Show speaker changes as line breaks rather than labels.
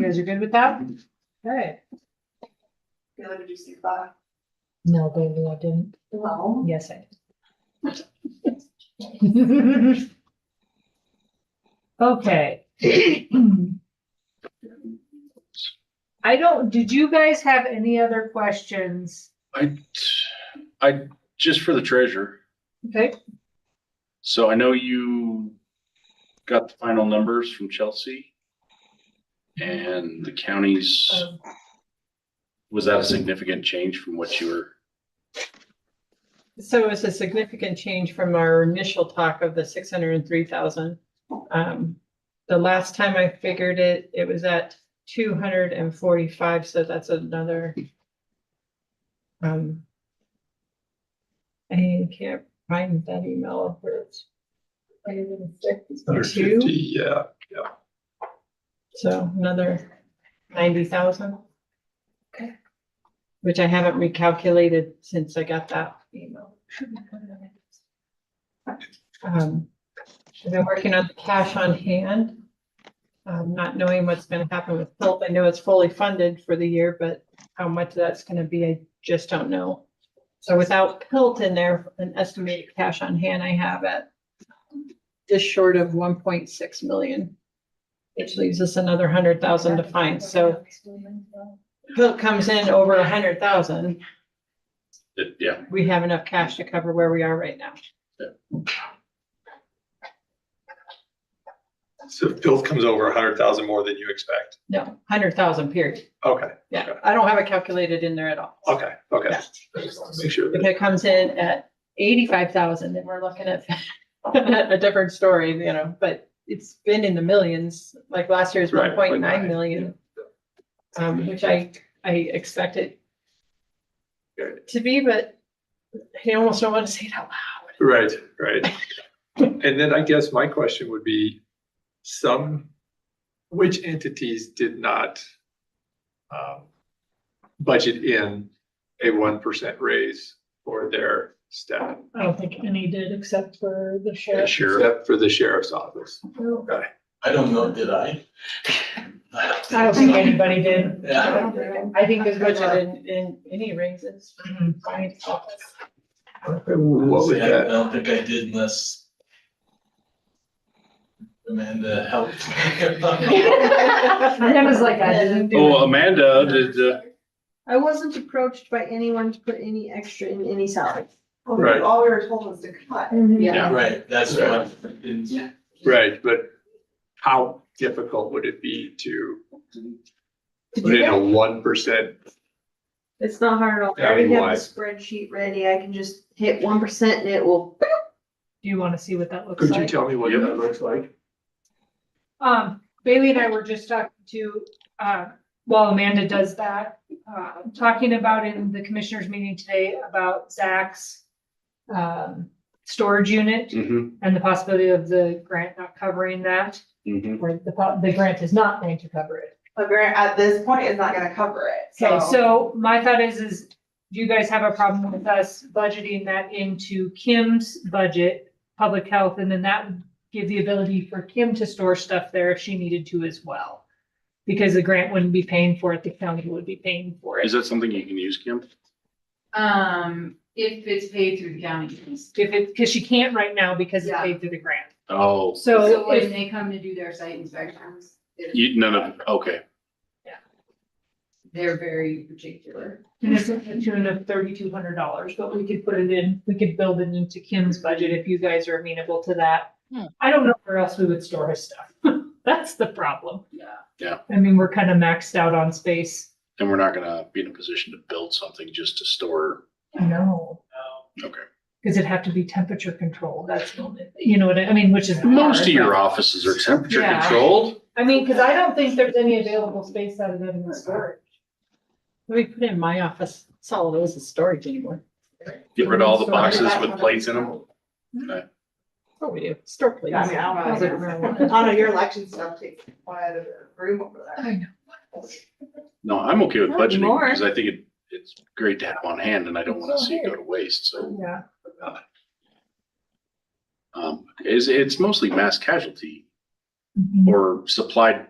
guys are good with that? Okay.
Taylor, did you see that?
No, baby, I didn't.
No.
Yes, I did.
Okay. I don't, did you guys have any other questions?
I, I, just for the treasure,
Okay,
so I know you got the final numbers from Chelsea. And the counties, was that a significant change from what you were?
So it's a significant change from our initial talk of the six hundred and three thousand. Um, the last time I figured it, it was at two hundred and forty-five, so that's another. Um. I can't find that email of where it's. Two,
yeah.
so another ninety thousand.
Okay.
Which I haven't recalculated since I got that email. Um, I've been working on the cash on hand. Um, not knowing what's gonna happen with Philp. I know it's fully funded for the year, but how much that's gonna be, I just don't know. So without Pilt in there, an estimated cash on hand I have at just short of one point six million, which leaves us another hundred thousand to find. So Pilt comes in over a hundred thousand,
it- Yeah,
we have enough cash to cover where we are right now.
So if Bill comes over a hundred thousand more than you expect.
No, hundred thousand period.
Okay,
Yeah, I don't have it calculated in there at all.
okay, okay. I just wanna Make sure.
If
that-
it comes in at eighty-five thousand, then we're looking at a different story, you know, but it's been in the millions, like last year's one
Right, like
point nine
nine, Mm-hmm.
million. Um, which I, I expected to be, but I almost don't want to say it out loud.
Right, right. And then I guess my question would be, some, which entities did not um, budget in a one percent raise for their staff,
I don't think any did except for the
yeah,
sheriff.
sure.
except for the sheriff's office?
I don't know, did I?
I don't think anybody did.
Yeah,
I think there's budget in, in any raises.
Mm-hmm.
Fine.
What was
See, I
that?
don't think I did unless Amanda helped.
I was like, I didn't do
um,
Oh, Amanda, did, uh,
I wasn't approached by anyone to put any extra in any salary.
Right.
All we were told was to cut.
Mm-hmm.
Yeah.
Right, that's what, I didn't-
Right, but how difficult would it be to
Did
put
you
in
guys-
a one percent?
It's not hard at all. I
Yeah, I mean,
already have
why?
a spreadsheet ready. I can just hit one percent and it will.
Do you want to see what that looks
Could you
like?
tell me what
Yep.
that looks like?
Um, Bailey and I were just talking to, uh, while Amanda does that, uh, talking about in the commissioners meeting today about Zach's um, storage unit
mhm,
and the possibility of the grant not covering that,
mhm.
or the, po- the grant is not going to cover it.
The grant at this point is not gonna cover it,
Okay,
so.
so my thought is, is do you guys have a problem with us budgeting that into Kim's budget, public health, and then that would give the ability for Kim to store stuff there if she needed to as well? Because the grant wouldn't be paying for it, the county would be paying for
Is
it.
that something you can use, Kim?
Um, if it's paid through the county.
If it, because she can't right now because it's
Yeah.
paid through the grant.
Oh,
So
So
when
if,
they come to do their site inspections, they're-
you, none of, okay,
they're very particular.
and it's to the tune of thirty-two hundred dollars, but we could put it in, we could build it into Kim's budget if you guys are amenable to that. I don't know where else we would store his stuff. That's the problem.
Yeah.
I mean, we're kind of maxed out on space.
then we're not gonna be in a position to build something just to store,
No.
okay.
Because it'd have to be temperature controlled. That's, the only- you know what I, I mean, which is.
Most of
hard,
your
but-
offices are temperature
Yeah.
controlled.
I mean, because I don't think there's any available space out of that in the storage.
We put in my office, it's all those is storage anymore.
Get rid of all the boxes with plates in them.
That's what Oh, we do, store plates.
Yeah, I mean, I don't know. I don't know, your election stuff takes one out of the room over there.
No, I'm okay with
Not
budgeting
anymore.
because I think it, it's great to have on hand and I don't want to see it go to waste. So,
Yeah.
um, it's, it's mostly mass casualty
Mhm.
or supplied